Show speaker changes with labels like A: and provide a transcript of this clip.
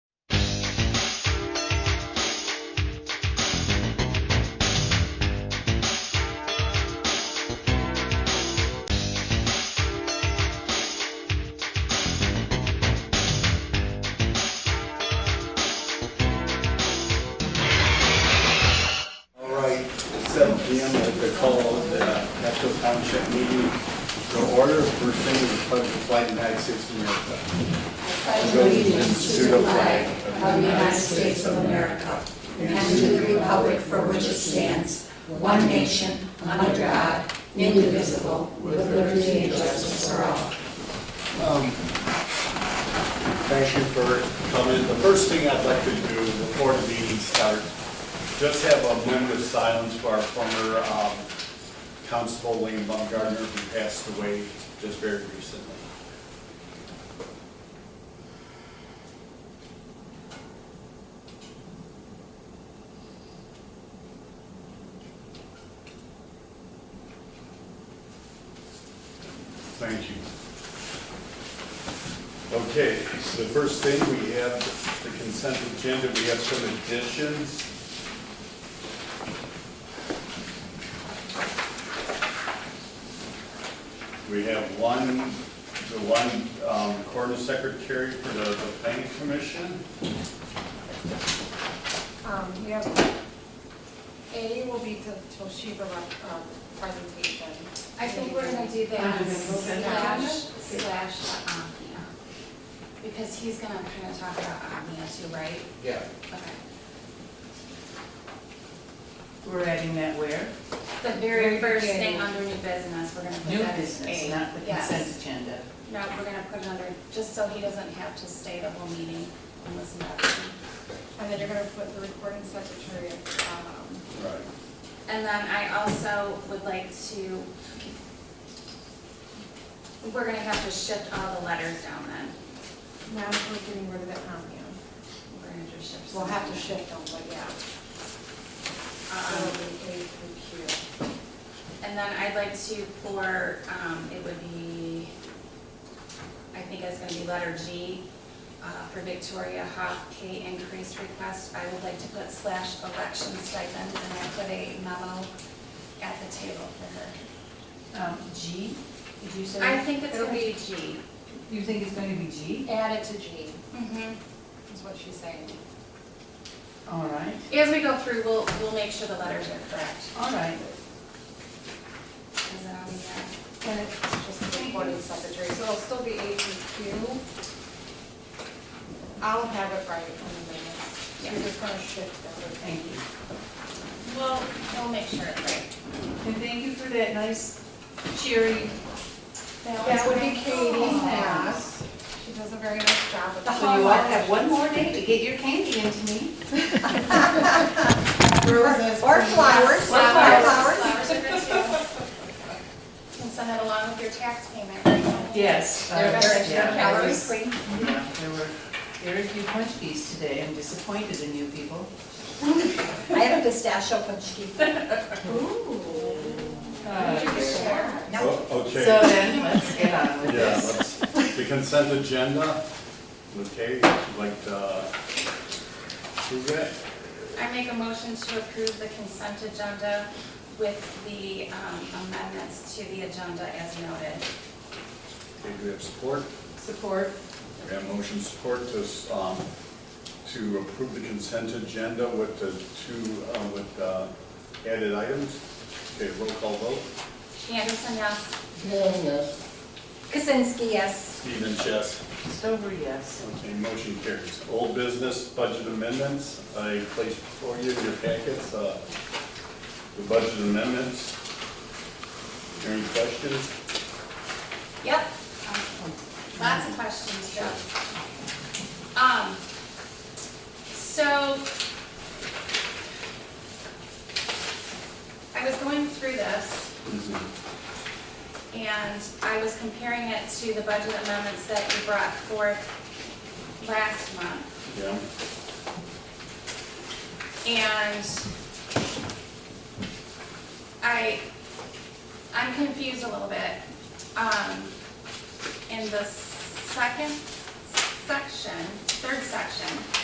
A: PM of the call of the Metro Township meeting to order for singing the pledge of flight in United States of America.
B: pledge allegiance to the flag of the United States of America and to the republic for which it stands, one nation, under God, indivisible, with liberty and justice for all.
A: um, Thank you for coming. The first thing I'd like to do before the meeting starts, just have a moment of silence for our former um, Constable William Baumgartner, who passed away just very recently. Thank you. Okay, so the first thing, we have the consent agenda, we have some additions. We have one, the one um, recorded secretary for the the planning commission.
C: Um, we have, A will be the Toshiba um, presentation.
D: I think we're gonna do
B: Um,
D: that slash, slash the Omnia. Because he's gonna kind of talk about Omnia too, right?
E: Yeah,
D: Okay.
F: We're adding that where?
D: The very first thing under new business, we're gonna put
F: New
D: that as A.
F: business, not the
D: Yes.
F: consent agenda.
D: No, we're gonna put it under, just so he doesn't have to stay the whole meeting and listen to everything.
C: And then you're gonna put the recording secretary, um,
A: Right.
D: And then I also would like to, we're gonna have to shift all the letters down then.
C: now we're getting rid of that Omnia.
D: We're gonna just shift.
C: We'll have to
D: some.
C: shift them, but yeah. So
D: Um,
C: it'll be A through Q.
D: And then I'd like to for, um, it would be, I think it's gonna be letter G, uh, for Victoria Huff, pay increase request. I would like to put slash election stipend, and I put a memo at the table for her.
F: Um, G, did you
D: I
F: say?
D: think it's gonna be G.
F: You think it's going to be G?
C: Add it to G, Mm-hmm.
D: Mhm.
C: is what she's saying.
F: All right,
D: As we go through, we'll, we'll make sure the letters are correct.
F: all right.
D: Is that all we got?
C: And it's just the recording secretary, so it'll still be A through Q. I'll have it right in the minutes. You're just gonna shift everything.
F: Thank you.
D: Well, we'll make sure it's right.
F: And thank you for that nice cheery. Oh,
C: That would be Katie Mass. She does a very nice job at the
F: So you all have one more day to get your candy into me. Roses.
B: Or flowers.
D: Flowers, flowers are good too. You can send it along with your tax payment.
F: Yes. uh,
D: They're better than
F: yeah, I
D: calories
F: was-
D: free.
F: yeah, Mm-hmm. There were very few punch keys today. I'm disappointed in you people.
B: I have a pistachio punch cake.
F: Uh,
B: No.
A: O- Oh,
F: So
A: Okay,
F: then, let's get on with
A: yeah,
F: this.
A: let's, the consent agenda, okay, would you like to, who's that?
D: I make a motion to approve the consent agenda with the um, amendments to the agenda as noted.
A: Okay, do we have support?
F: Support.
A: We have motion support to, um, to approve the consent agenda with the two, uh, with, uh, added items. Okay, roll call vote.
D: Anderson, yes.
E: yes.
D: Kaczynski, yes.
A: Stephen Chess.
F: Stover, yes.
A: Okay, motion carries. Old business budget amendments, I placed before you in your packets, uh, the budget amendments. Any questions?
D: Yep. Lots of questions, Joe. Um, so I was going through this and I was comparing it to the budget amendments that you brought forth last month.
A: Yeah,
D: And I, I'm confused a little bit. Um, in the second section, third section,